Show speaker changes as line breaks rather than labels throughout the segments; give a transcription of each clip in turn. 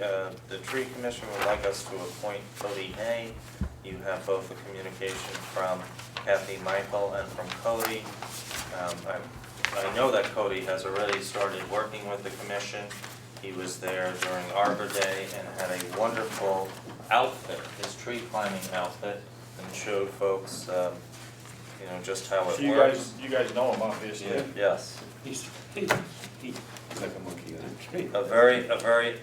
Uh, The tree commission would like us to appoint Cody Hay. You have both the communication from Kathy Michael and from Cody. Um, I- I know that Cody has already started working with the commission. He was there during Arbor Day and had a wonderful outfit, his tree climbing outfit, and showed folks, um, you know, just how
So
it
you guys,
works.
you guys know him, obviously.
Yeah, Yes,
He's, he, he- he's like a monkey on a tree.
a very, a very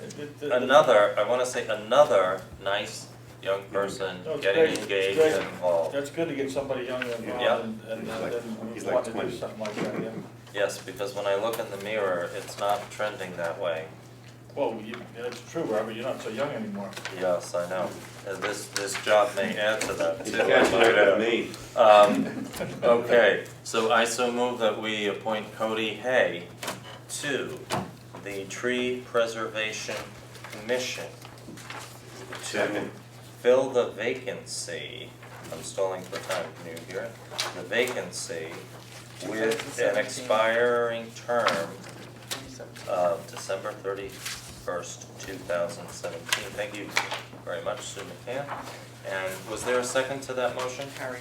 It- it-
another, I wanna say another nice young person
No, it's Mm-hmm. great,
getting
it's
engaged
great.
and involved.
That's good to get somebody young and
Yeah.
involved and, and,
He's like-
and
he's
want
like
to do
20.
something like that, yeah.
Yes, because when I look in the mirror, it's not trending that way.
Well, you, that's true, Robert, you're not so young anymore.
Yes, I know. And this, this job may add to that
He's
too.
catching
I know.
up with me.
Um, okay, so I so move that we appoint Cody Hay to the Tree Preservation Commission. To
Second.
fill the vacancy, I'm stalling for time, can you hear it? The vacancy with an
2017.
expiring term of December thirty-first, two thousand seventeen. Thank you very much, Sue McCann. And was there a second to that motion?
Harry.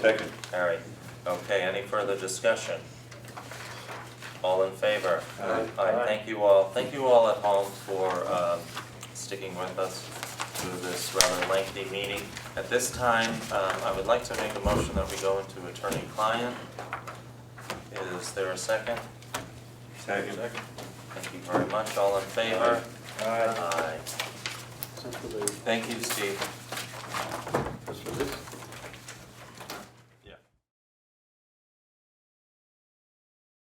Second.
All right, okay, any further discussion? All in favor?
Aye.
thank you all, thank you all at home for um, sticking with us through this rather lengthy meeting. At this time, um, I would like to make a motion that we go into attorney-client. Is there a second?
Second.
Second.
Thank you
Uh,
very much, all in favor?
Aye.
Aye. Thank you, Steve.